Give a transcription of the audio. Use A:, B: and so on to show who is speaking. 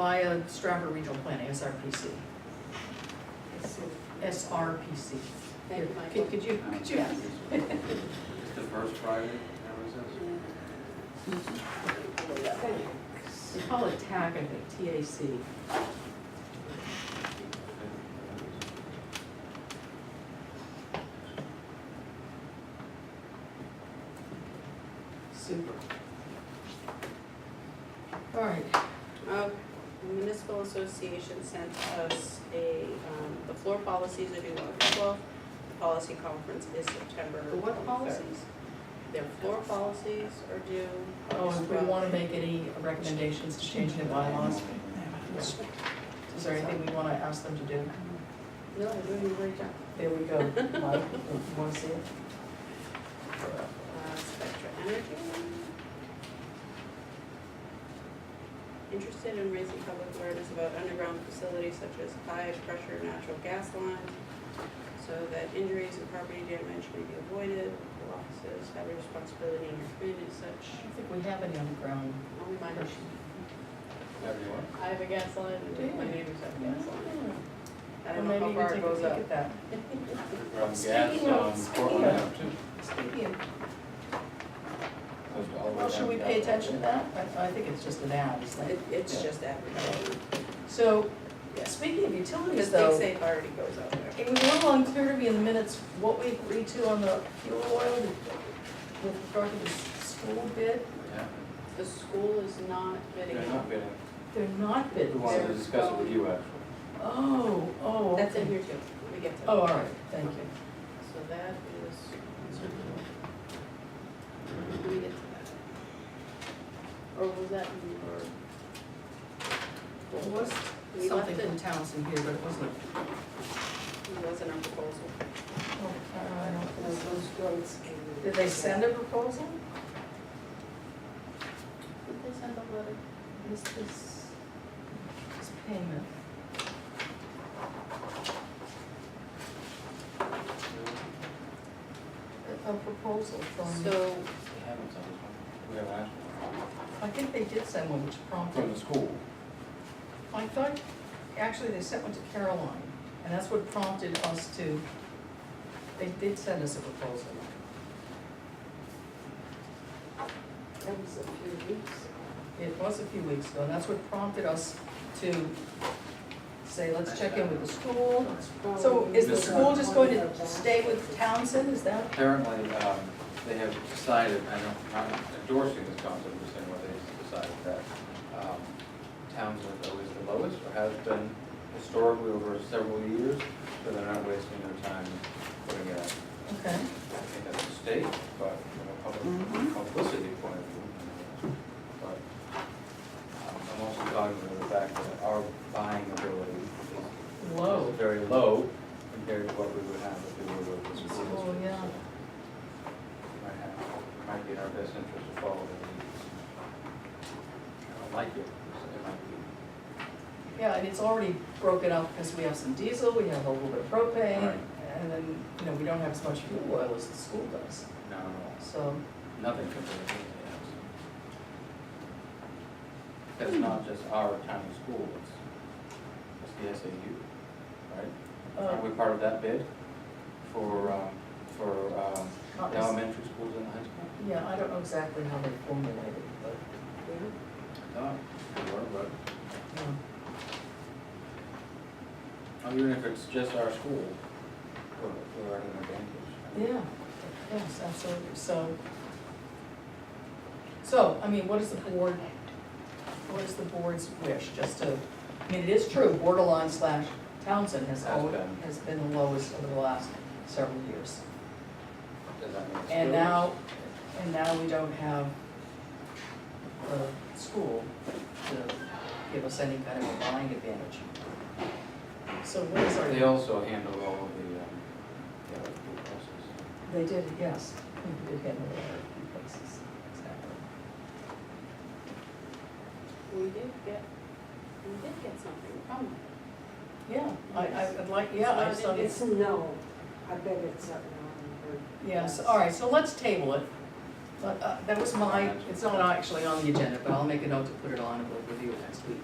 A: via Stratford Regional Planning, SRPC, SRPC.
B: Thank you, Michael.
A: Could could you, could you?
C: It's the first Friday, that
A: They call it TAC, I think, TAC.
C: was
A: Super. All right,
B: Uh, Municipal Association sent us a, um, the floor policies are due August twelfth. The policy conference is September.
A: The what
B: 23rd.
A: policies?
B: Their floor policies are due
A: oh,
B: August
A: and we
B: twelfth.
A: want to make any recommendations to change their bylaws. Is there anything we want to ask them to do?
B: No, they're doing a great job.
A: There we go. Mike, you want to see it?
B: Uh, Spectra Energy. Interested in raising public awareness about underground facilities such as high-pressure natural gas lines so that injuries and property damage may be avoided. Local Offices have a responsibility in their community as
A: I
B: such.
A: don't think we have any underground.
B: Only my,
C: Everyone?
B: I have a gas line,
A: Do you?
B: and my neighbors have a gas line.
A: Well,
B: I don't know
A: maybe
B: how
A: you can take a
B: far it goes
A: peek
B: up.
A: at that.
C: Ground gas
A: Speaking of-
C: on Portland Ave too.
A: Speaking of
C: Goes all the way
A: Well, should
C: down
A: we
C: to
A: pay
C: Galveston.
A: attention to that? I, I think it's just an ad, it's like,
B: It, it's just advertising.
A: so,
B: Yeah.
A: speaking of utilities
B: Because
A: though, it
B: Dig Safe already goes out there.
A: was a little unclear to me in the minutes what we agreed to on the fuel oil with regard to the school bid.
C: Yeah,
B: The school is not bidding
C: they're
B: out.
C: not bidding.
A: They're not
C: We
A: bidding.
C: wanted to
B: They're
C: discuss it with you actually.
A: Oh, oh,
B: That's in
A: okay.
B: here too, let me get to it.
A: Oh, all right, thank you.
B: So that is, let me get to that. Or was that, in-
A: There
B: or?
A: was
B: We left
A: something
B: it,
A: from Townsend here, but it wasn't.
B: it wasn't our proposal.
A: Oh, Did they send a proposal?
B: Did they send a letter?
A: This is, this payment. A proposal from,
B: So,
C: They haven't sent us one. We haven't asked
A: I think they did send one, which
C: one.
A: prompted
C: From the school.
A: I thought, actually, they sent one to Caroline, and that's what prompted us to, they did send us a proposal.
B: that was a few weeks.
A: It was a few weeks ago, and that's what prompted us to say, let's check in with the school. So is the school just going to stay with Townsend, is that?
C: Apparently, um, they have decided, I know, I'm not endorsing this concept, I'm just saying what they decided that um, Townsend is always the lowest, or has been historically over several years, so they're not wasting their time putting it out.
A: Okay,
C: I think that's a mistake, but from a public publicity point of view. But um, I'm also cognizant of the fact that our buying ability is
A: low.
C: is very low compared to what we would have if we were with this.
A: Oh,
C: business.
A: yeah.
C: So it Might have, it might be in our best interest to follow the leads. I don't like it, so it might be.
A: Yeah, and it's already broken up because we have some diesel, we have a little bit of propane,
C: Right.
A: and then, you know, we don't have as much fuel oil as the school does,
C: No, no,
A: so.
C: nothing compared to anything else. That's not just our county school, it's, it's the SAU, right?
A: uh,
C: Are we part of that bid for, um, for, um,
A: not
C: the
A: as-
C: elementary schools and the high school?
A: Yeah, I don't know exactly how they formulated it, but.
C: No, we were, Uh, but.
A: um,
C: I'm wondering if it's just our school, we're, we're at an advantage.
A: Yeah, yes, absolutely, so. So, I mean, what is the board, what is the board's wish, just to, I mean, it is true, borderline slash Townsend has
C: Has
A: always,
C: been.
A: has been the lowest over the last several years.
C: Does that mean it's
A: And
C: good?
A: now, and now we don't have the school to give us any kind of a buying advantage. So what is our?
C: They also handle all of the, um, the other school buses.
A: They did, yes. They did handle it. Places, exactly.
B: We did get, we did get something from them.
A: Yeah, I, I- I'd like, yeah, I saw
D: It's
A: this.
D: a no, I bet it's a no.
A: Yes, all right, so let's table it. But, uh, that was my, it's not actually on the agenda, but I'll make a note to put it on and we'll review it next week.